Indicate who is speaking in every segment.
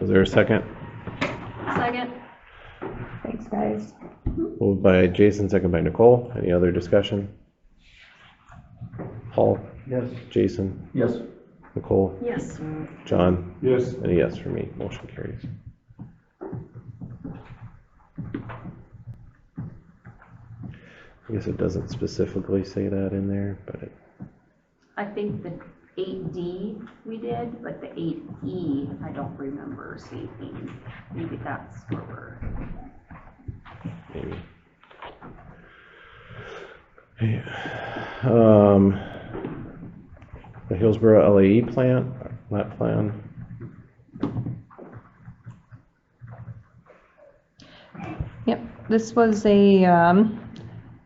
Speaker 1: Is there a second?
Speaker 2: Second.
Speaker 3: Thanks, guys.
Speaker 1: Moved by Jason, second by Nicole. Any other discussion? Paul,
Speaker 4: Yes.
Speaker 1: Jason,
Speaker 4: Yes.
Speaker 1: Nicole,
Speaker 2: Yes.
Speaker 1: John,
Speaker 4: Yes.
Speaker 1: and a yes for me. Motion carries. I guess it doesn't specifically say that in there, but it,
Speaker 2: I think the eight D we did, but the eight E, I don't remember seeing. Maybe that's where we're.
Speaker 1: maybe. Hey, Um, the Hillsborough LAE plant, plant plan.
Speaker 3: Yep, this was a um,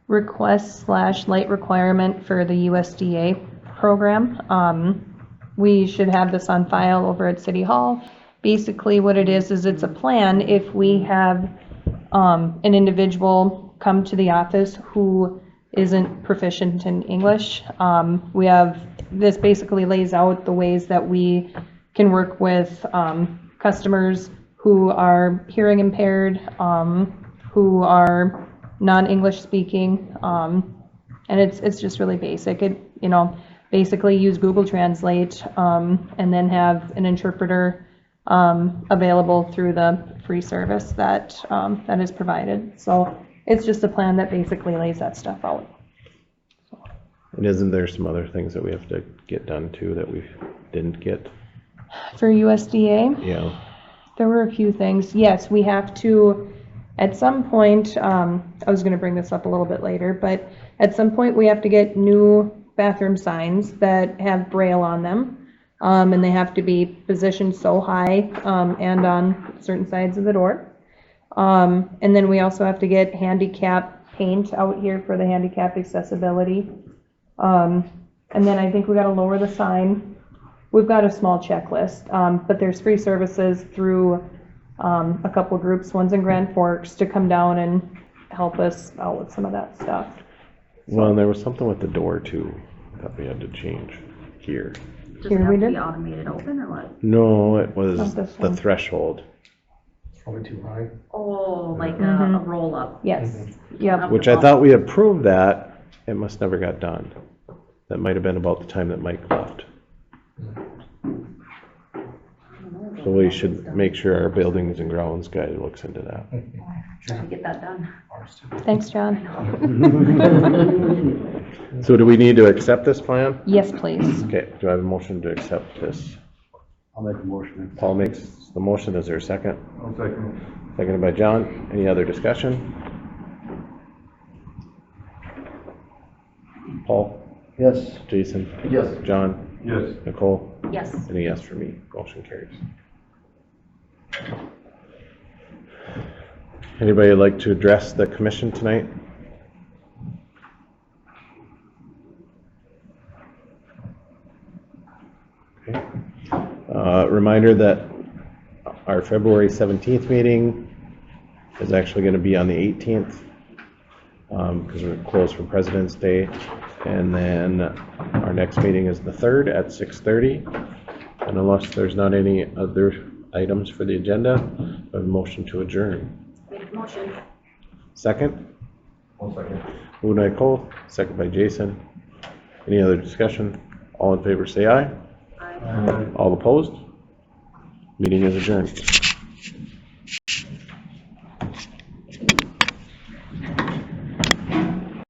Speaker 3: request slash light requirement for the USDA program. Um, We should have this on file over at City Hall. Basically, what it is, is it's a plan if we have um, an individual come to the office who isn't proficient in English. Um, We have, this basically lays out the ways that we can work with um, customers who are hearing impaired, um, who are non-English speaking. um, And it's, it's just really basic. It, you know, basically use Google Translate um, and then have an interpreter um, available through the free service that, um, that is provided. So it's just a plan that basically lays that stuff out.
Speaker 1: And isn't there some other things that we have to get done too that we didn't get?
Speaker 3: For USDA,
Speaker 1: Yeah,
Speaker 3: There were a few things. Yes, we have to, at some point, um, I was gonna bring this up a little bit later, but at some point, we have to get new bathroom signs that have braille on them. Um, and they have to be positioned so high, um, and on certain sides of the door. Um, and then we also have to get handicap paint out here for the handicap accessibility. Um, and then I think we gotta lower the sign We've got a small checklist, um, but there's free services through, um, a couple groups, one's in Grand Forks, to come down and help us out with some of that stuff.
Speaker 1: well, and there was something with the door too that we had to change here.
Speaker 2: Just
Speaker 3: Here
Speaker 2: have
Speaker 3: we
Speaker 2: to be
Speaker 3: did.
Speaker 2: automated open or what?
Speaker 1: No, it was
Speaker 3: Not this
Speaker 1: the
Speaker 3: one.
Speaker 1: threshold,
Speaker 4: Probably too high.
Speaker 2: Oh, like a, a
Speaker 3: Mhm.
Speaker 2: roll up.
Speaker 3: Yes, yep,
Speaker 1: which I thought we approved that, it must never got done. That might have been about the time that Mike left. So we should make sure our buildings and grounds guy looks into that.
Speaker 2: Trying to get that done.
Speaker 4: Ours too.
Speaker 3: thanks, John.
Speaker 1: So do we need to accept this plan?
Speaker 3: Yes, please.
Speaker 1: Okay, do I have a motion to accept this?
Speaker 4: I'll make a motion.
Speaker 1: Paul makes the motion, is there a second?
Speaker 4: I'll second
Speaker 1: Seconded by John. Any other discussion? Paul,
Speaker 4: Yes.
Speaker 1: Jason,
Speaker 4: Yes.
Speaker 1: John,
Speaker 4: Yes.
Speaker 1: Nicole,
Speaker 2: Yes.
Speaker 1: and a yes for me. Motion carries. Anybody like to address the commission tonight? Okay. Uh, Reminder that our February 17th meeting is actually going to be on the 18th because we're closed for President's Day. And then our next meeting is the 3rd at 6:30. And unless there's not any other items for the agenda, a motion to adjourn.
Speaker 2: Make a motion.
Speaker 1: Second,
Speaker 4: I'll second.
Speaker 1: moved by Cole, second by Jason. Any other discussion? All in favor, say aye.
Speaker 2: Aye.
Speaker 4: Aye.
Speaker 1: All opposed? Meeting is adjourned.